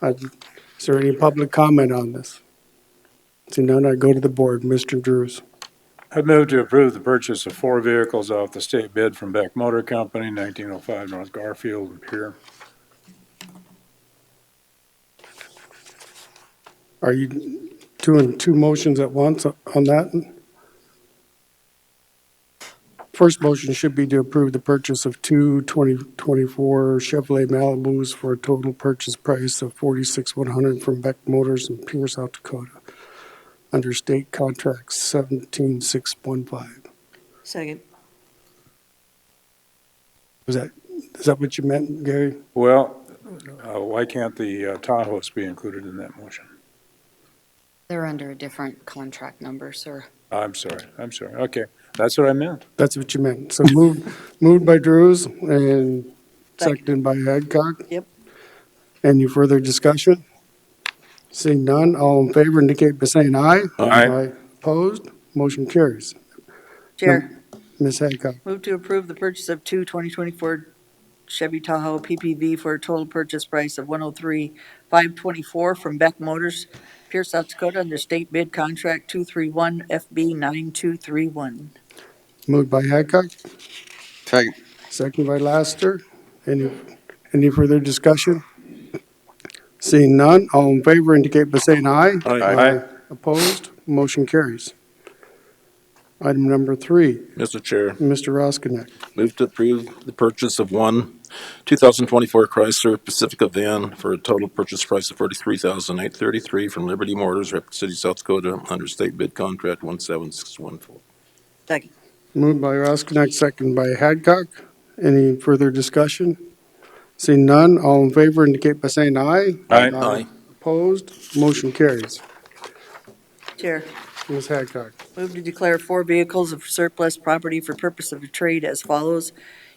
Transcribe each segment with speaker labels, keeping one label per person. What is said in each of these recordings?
Speaker 1: Uh, Is there any public comment on this? Seeing none, I go to the board. Mr. Drews.
Speaker 2: I move to approve the purchase of four vehicles off the state bid from Beck Motor Company, 1905 North Garfield and Pier.
Speaker 1: Are you doing two motions at once on that? First motion should be to approve the purchase of two 2024 Chevrolet Malibus for a total purchase price of 46,100 from Beck Motors in Pierce, South Dakota, under state contract 17615.
Speaker 3: Second.
Speaker 1: Was that, is that what you meant, Gary?
Speaker 2: Well, uh, why can't the uh, Tahoes be included in that motion?
Speaker 4: They're under a different contract number, sir.
Speaker 2: I'm sorry, I'm sorry. Okay, that's what I meant.
Speaker 1: That's what you meant. So moved, moved by Drews and seconded by Adcock.
Speaker 3: Yep.
Speaker 1: Any further discussion? Seeing none, all in favor indicate by saying aye.
Speaker 2: Aye.
Speaker 1: Opposed, motion carries.
Speaker 3: Chair,
Speaker 1: Ms. Adcock,
Speaker 3: move to approve the purchase of two 2024 Chevy Tahoe PPV for a total purchase price of 103,524 from Beck Motors, Pierce, South Dakota, under state bid contract 231 FB 9231.
Speaker 1: moved by Adcock,
Speaker 5: Second.
Speaker 1: seconded by Laster. Any, any further discussion? Seeing none, all in favor indicate by saying aye.
Speaker 2: Aye.
Speaker 1: Opposed, motion carries. Item number three,
Speaker 6: Mr. Chair,
Speaker 1: Mr. Roskinek.
Speaker 6: move to approve the purchase of one 2024 Chrysler Pacifica van for a total purchase price of 43833 from Liberty Motors, Rapid City, South Dakota, under state bid contract 17614.
Speaker 3: Second.
Speaker 1: Moved by Roskinek, second by Hadcock. Any further discussion? Seeing none, all in favor indicate by saying aye.
Speaker 2: Aye.
Speaker 1: Opposed, motion carries.
Speaker 3: Chair,
Speaker 1: Ms. Hadcock,
Speaker 3: move to declare four vehicles of surplus property for purpose of trade as follows.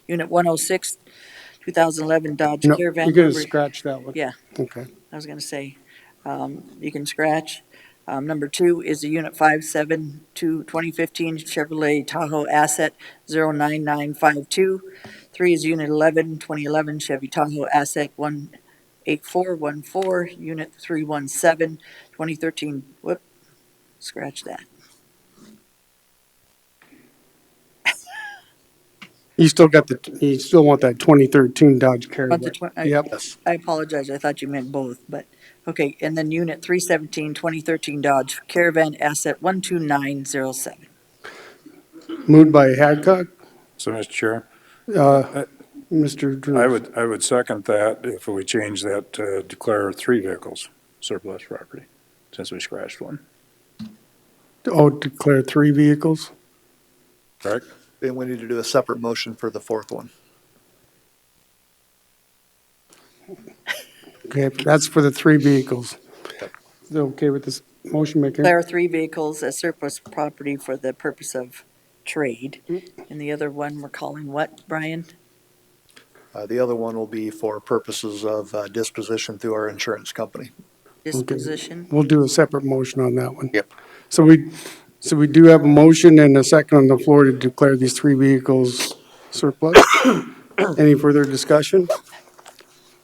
Speaker 3: Unit 106, 2011 Dodge
Speaker 1: no,
Speaker 3: Caravan.
Speaker 1: you're gonna
Speaker 3: number-
Speaker 1: scratch that one.
Speaker 3: Yeah.
Speaker 1: Okay.
Speaker 3: I was going to say, um, you can scratch. Um, Number two is the Unit 572 2015 Chevrolet Tahoe Asset 09952. Three is Unit 11 2011 Chevy Tahoe Asset 18414. Unit 317 2013, whoop, scratch that.
Speaker 1: You still got the, you still want that 2013 Dodge
Speaker 3: Want the oh,
Speaker 1: Caravan?
Speaker 3: twen- I-
Speaker 1: Yep,
Speaker 3: I apologize, I thought you meant both, but, okay. And then Unit 317 2013 Dodge Caravan Asset 12907.
Speaker 1: moved by Hadcock,
Speaker 2: So, Mr. Chair,
Speaker 1: uh, Mr. Drews.
Speaker 2: I would, I would second that if we change that to declare three vehicles surplus property, since we scratched one,
Speaker 1: Oh, declare three vehicles?
Speaker 2: correct?
Speaker 5: Then we need to do a separate motion for the fourth one.
Speaker 1: Okay, that's for the three vehicles. Is it okay with this motion maker?
Speaker 3: Declare three vehicles as surplus property for the purpose of trade. And the other one, we're calling what, Brian?
Speaker 5: Uh, the other one will be for purposes of uh, disposition through our insurance company.
Speaker 3: Disposition?
Speaker 1: We'll do a separate motion on that one.
Speaker 5: Yep.
Speaker 1: So we, so we do have a motion and a second on the floor to declare these three vehicles surplus. Any further discussion?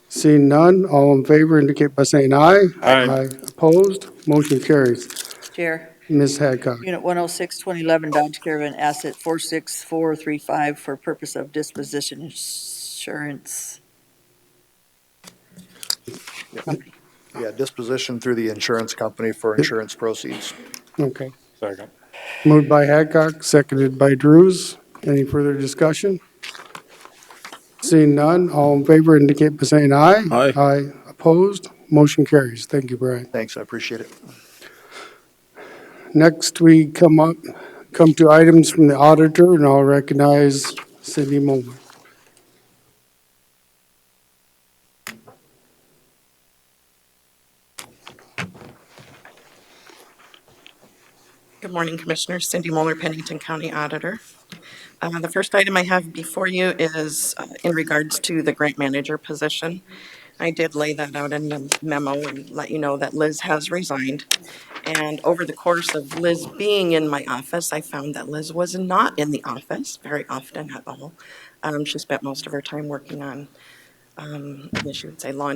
Speaker 1: Seeing none, all in favor indicate by saying aye.
Speaker 2: Aye.
Speaker 1: Opposed, motion carries.
Speaker 3: Chair,
Speaker 1: Ms. Hadcock,
Speaker 3: Unit 106, 2011 Dodge Caravan Asset 46435 for purpose of disposition insurance.
Speaker 5: Yeah, disposition through the insurance company for insurance proceeds.
Speaker 1: okay.
Speaker 2: Second.
Speaker 1: Moved by Hadcock, seconded by Drews. Any further discussion? Seeing none, all in favor indicate by saying aye.
Speaker 6: Aye.
Speaker 1: Aye. Opposed, motion carries. Thank you, Brian.
Speaker 5: Thanks, I appreciate it.
Speaker 1: Next, we come up, come to items from the auditor, and I'll recognize Cindy Mulvey.
Speaker 7: Good morning, Commissioners. Cindy Moeller, Pennington County Auditor. Uh, The first item I have before you is uh, in regards to the grant manager position. I did lay that out in the memo and let you know that Liz has resigned. And over the course of Liz being in my office, I found that Liz was not in the office very often at all. Um, She spent most of her time working on, um, I guess you would say, law